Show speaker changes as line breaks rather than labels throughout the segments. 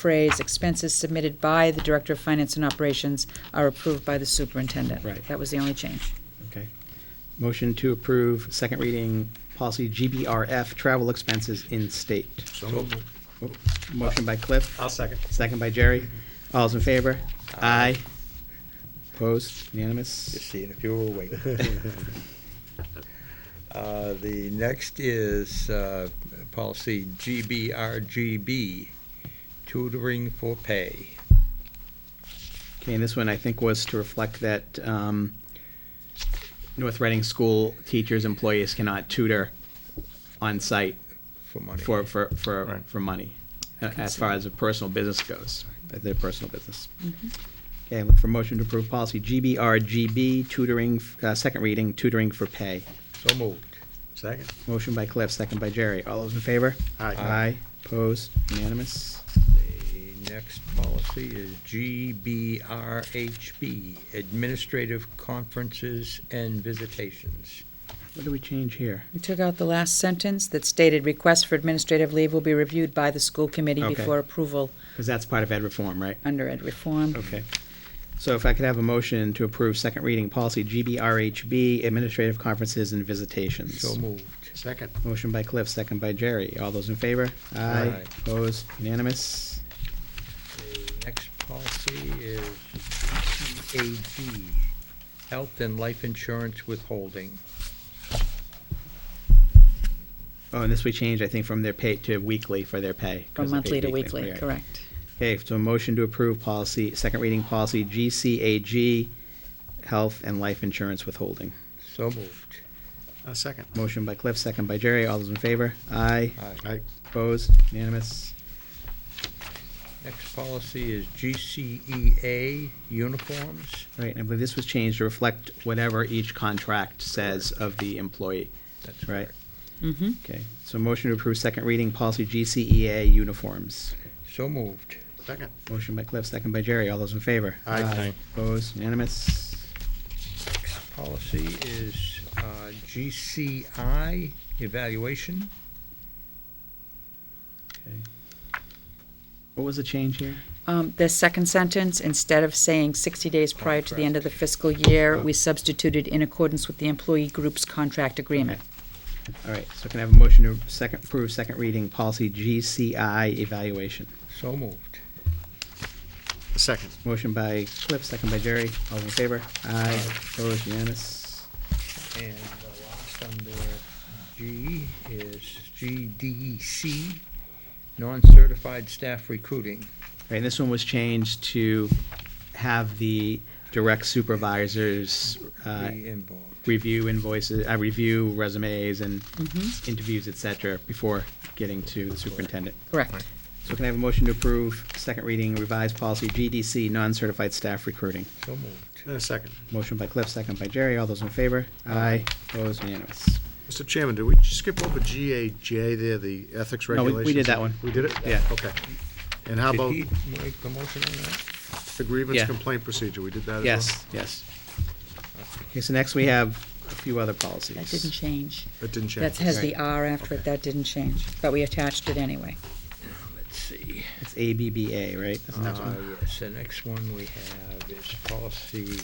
phrase, expenses submitted by the Director of Finance and Operations are approved by the superintendent.
Right.
That was the only change.
Okay. Motion to approve second reading policy GBRF, travel expenses in state.
So moved.
Motion by Cliff,
I'll second.
second by Jerry. All's in favor? Aye. Opposed? Unanimous?
Just seeing if you were awake. Uh, The next is uh, policy GBRGB, tutoring for pay.
Okay, and this one I think was to reflect that um, North Reading school teachers, employees cannot tutor on-site
For money.
for, for, for,
Right.
for money, uh, as far as a personal business goes, uh, their personal business.
Mm-hmm.
Okay, look for motion to approve policy GBRGB, tutoring, uh, second reading, tutoring for pay.
So moved.
Second?
Motion by Cliff, second by Jerry. All those in favor?
Aye.
Aye, opposed, unanimous.
The next policy is GBRHB, administrative conferences and visitations.
What do we change here?
We took out the last sentence that stated, requests for administrative leave will be reviewed by the school committee
Okay.
before approval
Because that's part of ed reform, right?
under ed reform.
Mm-hmm.
Okay. So if I could have a motion to approve second reading policy GBRHB, administrative conferences and visitations.
So moved.
Second.
Motion by Cliff, second by Jerry. All those in favor?
Aye.
Opposed? Unanimous?
The next policy is GCAG, health and life insurance withholding.
Oh, and this we changed, I think, from their pay to weekly for their pay.
From
'cause they're
monthly
paid
to weekly,
right.
correct.
Okay, so a motion to approve policy, second reading policy GCAG, health and life insurance withholding.
So moved.
I'll second.
Motion by Cliff, second by Jerry. All those in favor? Aye.
Aye.
Aye.
Opposed? Unanimous?
Next policy is GCEA, uniforms.
Right, and I believe this was changed to reflect whatever each contract says of the employee.
That's
Right.
correct.
Mm-hmm.
Okay, so motion to approve second reading policy GCEA uniforms.
So moved.
Second.
Motion by Cliff, second by Jerry. All those in favor?
Aye. Aye.
Opposed? Unanimous?
Next policy is uh, GCI, evaluation.
Okay. What was the change here?
Um, The second sentence, instead of saying 60 days prior to the end of the fiscal year, we substituted in accordance with the employee group's contract agreement.
All right, so can I have a motion to second, approve second reading policy GCI evaluation?
So moved.
Second.
Motion by Cliff, second by Jerry. All in favor? Aye. Opposed? Unanimous?
And the last under G is GDC, non-certified staff recruiting.
All right, and this one was changed to have the direct supervisors uh,
Be involved.
review invoices, uh, review resumes and
Mhm.
interviews, et cetera, before getting to the superintendent.
Correct.
So can I have a motion to approve second reading revised policy GDC, non-certified staff recruiting?
So moved.
Uh, second.
Motion by Cliff, second by Jerry. All those in favor? Aye. Opposed? Unanimous.
Mr. Chairman, did we skip over GAJ there, the ethics
No, we- we
regulations?
did that one.
We did it?
Yeah.
Okay. And how
Did
about
he make the motion on that?
the grievance
Yeah.
complaint procedure? We did that as well?
Yes, yes. Okay, so next we have a few other policies.
That didn't change.
It didn't change.
That has the R after it, that didn't change, but we attached it anyway.
Let's see.
It's ABBA, right? That's the next
Uh,
one.
yes, the next one we have is policy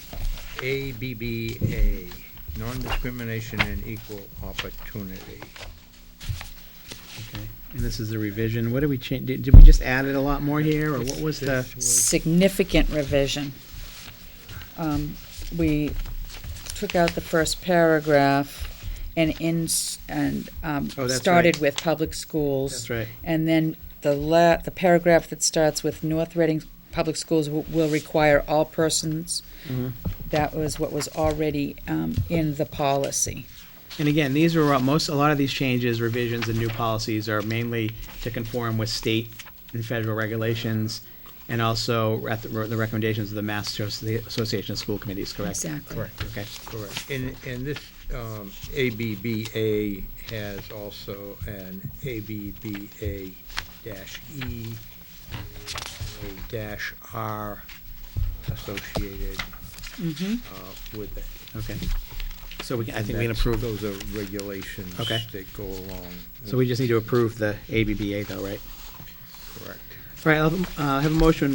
ABBA, non-discrimination and equal opportunity.
Okay. And this is the revision. What did we change? Did, did we just add it a lot more here, or what was the?
This was-
Significant revision. Um, We took out the first paragraph and in, and um,
Oh, that's
started
right.
with public schools.
That's right.
And then the la, the paragraph that starts with North Reading Public Schools w- will require all persons.
Mm-hmm.
That was what was already um, in the policy.
And again, these are, most, a lot of these changes, revisions, and new policies are mainly to conform with state and federal regulations, and also at the the recommendations of the Mass Association of School Committees, correct?
Exactly.
Correct, okay.
Correct. And, and this um, ABBA has also an ABBA dash E, a dash R associated
Mm-hmm.
uh, with it.
Okay. So we, can- I think we can
That's-
approve,
Those are regulations
Okay.
that go along.
so we just need to approve the ABBA though, right?
Correct.
All right, I'll have a- uh, have a motion